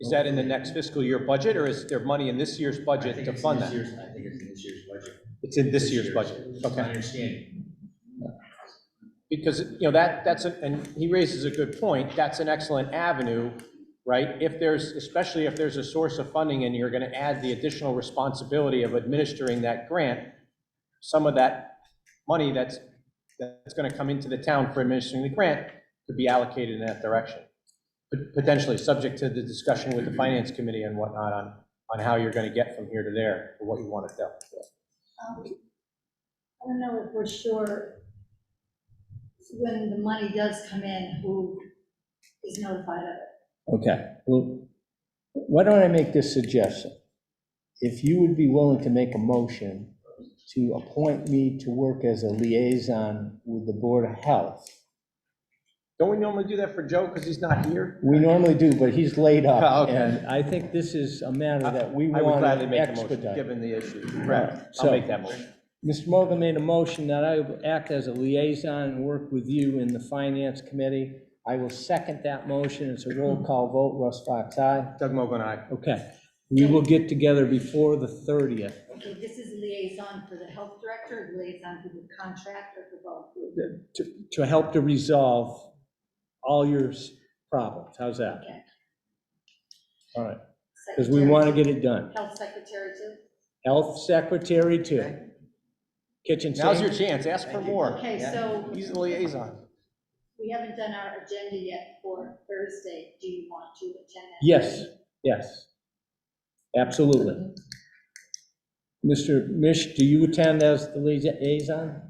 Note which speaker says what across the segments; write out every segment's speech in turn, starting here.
Speaker 1: Is that in the next fiscal year budget, or is there money in this year's
Speaker 2: I
Speaker 1: budget
Speaker 2: think
Speaker 1: to
Speaker 2: it's
Speaker 1: fund
Speaker 2: this
Speaker 1: that?
Speaker 2: year's- I think it's in this year's budget.
Speaker 1: It's in this year's budget,
Speaker 2: It's my
Speaker 1: okay?
Speaker 2: understanding.
Speaker 1: Because, you know, that, that's, a- and he raises a good point, that's an excellent avenue, right? If there's, especially if there's a source of funding and you're going to add the additional responsibility of administering that grant, some of that money that's, that's going to come into the town for administering the grant could be allocated in that direction. Pot- Potentially, subject to the discussion with the finance committee and whatnot on, on how you're going to get from here to there, or what you want to do.
Speaker 3: Um, I don't know if we're sure when the money does come in, who is notified of it.
Speaker 4: Okay, well, why don't I make this suggestion? If you would be willing to make a motion to appoint me to work as a liaison with the Board of Health.
Speaker 1: Don't we normally do that for Joe, because he's not here?
Speaker 4: We normally do, but he's laid
Speaker 1: Oh,
Speaker 4: up,
Speaker 1: okay.
Speaker 4: and I think this is a matter that we
Speaker 1: I would
Speaker 4: want
Speaker 1: gladly
Speaker 4: to
Speaker 1: make a motion,
Speaker 4: expedite.
Speaker 1: given the issue.
Speaker 4: Right,
Speaker 1: I'll
Speaker 4: so-
Speaker 1: make that motion.
Speaker 4: Mr. Morgan made a motion that I will act as a liaison and work with you in the Finance Committee. I will second that motion. It's a roll call vote. Russ Fox, aye.
Speaker 1: Doug Mogul, aye.
Speaker 4: Okay, we will get together before the 30th.
Speaker 3: Okay, this is liaison for the health director, liaison for the contractor, for both.
Speaker 4: to, to help to resolve all your s- problems. How's that?
Speaker 3: Okay.
Speaker 4: All right, because we want to get it done.
Speaker 3: Health secretary too?
Speaker 4: Health secretary too. Kitchen
Speaker 1: Now's your
Speaker 4: sink.
Speaker 1: chance, ask for more.
Speaker 3: Okay,
Speaker 2: Yeah.
Speaker 3: so
Speaker 1: He's the liaison.
Speaker 3: we haven't done our agenda yet for Thursday. Do you want to attend that?
Speaker 4: Yes, yes. Absolutely. Mr. Mish, do you attend as the liaison?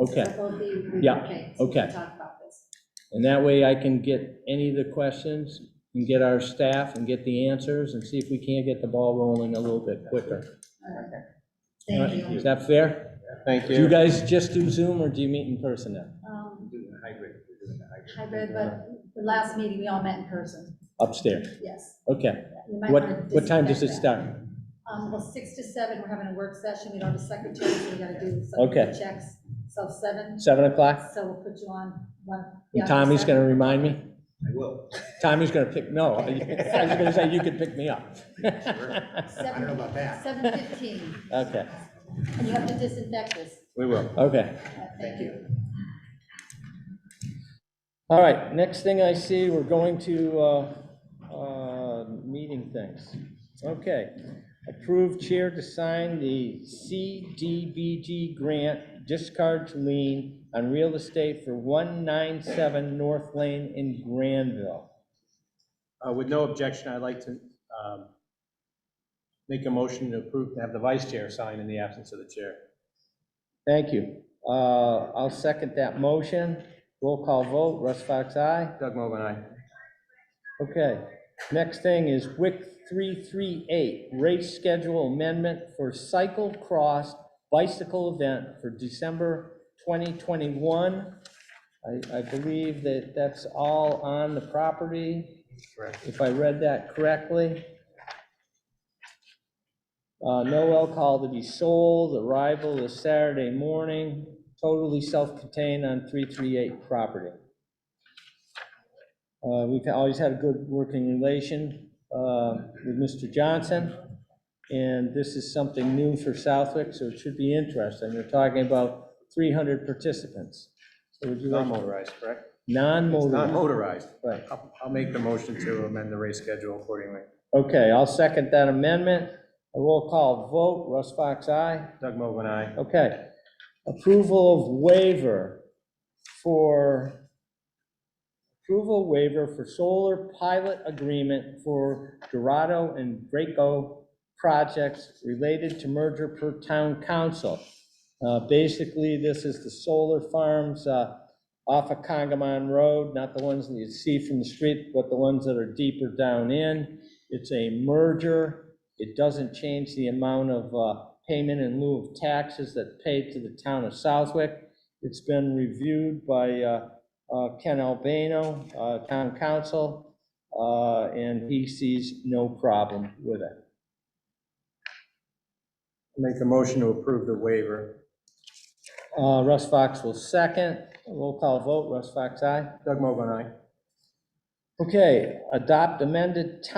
Speaker 4: Okay.
Speaker 3: So both of you-
Speaker 4: Yeah,
Speaker 3: Okay, so we can
Speaker 4: okay.
Speaker 3: talk about this.
Speaker 4: And that way I can get any of the questions and get our staff and get the answers and see if we can't get the ball rolling a little bit quicker. All right,
Speaker 3: Thank you.
Speaker 4: Is that fair?
Speaker 1: Thank
Speaker 4: Do you
Speaker 1: you.
Speaker 4: guys just do Zoom or do you meet in person now?
Speaker 3: Um,
Speaker 2: We're doing a hybrid, we're doing a hybrid.
Speaker 3: I read, but the last meeting, we all met in person,
Speaker 4: Upstairs,
Speaker 3: yes.
Speaker 4: okay.
Speaker 3: You might wanna
Speaker 4: What, what time does it
Speaker 3: disconnect
Speaker 4: start?
Speaker 3: that. Um, well, six to seven, we're having a work session, we don't have a secretary, so we gotta do some
Speaker 4: Okay.
Speaker 3: checks, so seven,
Speaker 4: Seven o'clock?
Speaker 3: so we'll put you on one. yeah,
Speaker 4: And Tommy's
Speaker 3: seven.
Speaker 4: gonna remind me?
Speaker 2: I will.
Speaker 4: Tommy's gonna pick, no, I was gonna say you could pick me up.
Speaker 2: I don't know about that.
Speaker 3: Seven fifteen,
Speaker 4: Okay,
Speaker 3: and you have to disinfect this,
Speaker 1: We will.
Speaker 4: okay.
Speaker 3: Uh, thank you.
Speaker 4: All right, next thing I see, we're going to, uh, uh, meeting things. Okay. Approved chair to sign the CDBG grant discards lien on real estate for 197 North Lane in Granville.
Speaker 1: Uh, With no objection, I'd like to um, make a motion to approve, to have the vice chair sign in the absence of the chair.
Speaker 4: Thank you. Uh, I'll second that motion. Roll call vote, Russ Fox, aye.
Speaker 1: Doug Mogul, aye.
Speaker 4: Okay, next thing is WIC 338, race schedule amendment for cycle cross bicycle event for December 2021. I, I believe that that's all on the property,
Speaker 1: Correct.
Speaker 4: if I read that correctly. Uh, No alcohol to be sold, arrival is Saturday morning, totally self-contained on 338 property. Uh, We've always had a good working relation uh, with Mr. Johnson, and this is something new for Southwick, so it should be interesting. They're talking about 300 participants. So would you like,
Speaker 1: Non-motorized, correct?
Speaker 4: non-motorized?
Speaker 1: Non-motorized.
Speaker 4: Right.
Speaker 1: I'll I'll make the motion to amend the race schedule accordingly.
Speaker 4: Okay, I'll second that amendment. A roll call vote, Russ Fox, aye.
Speaker 1: Doug Mogul, aye.
Speaker 4: Okay. Approval of waiver for, approval waiver for solar pilot agreement for Dorado and Braco projects related to merger per town council. Uh, Basically, this is the solar farms uh, off of Congamon Road, not the ones that you see from the street, but the ones that are deeper down in. It's a merger. It doesn't change the amount of uh, payment in lieu of taxes that paid to the town of Southwick. It's been reviewed by uh, uh, Ken Albano, uh, town council, uh, and he sees no problem with it.
Speaker 1: Make a motion to approve the waiver.
Speaker 4: Uh, Russ Fox will second. Roll call vote, Russ Fox, aye.
Speaker 1: Doug Mogul, aye.
Speaker 4: Okay, adopt amended town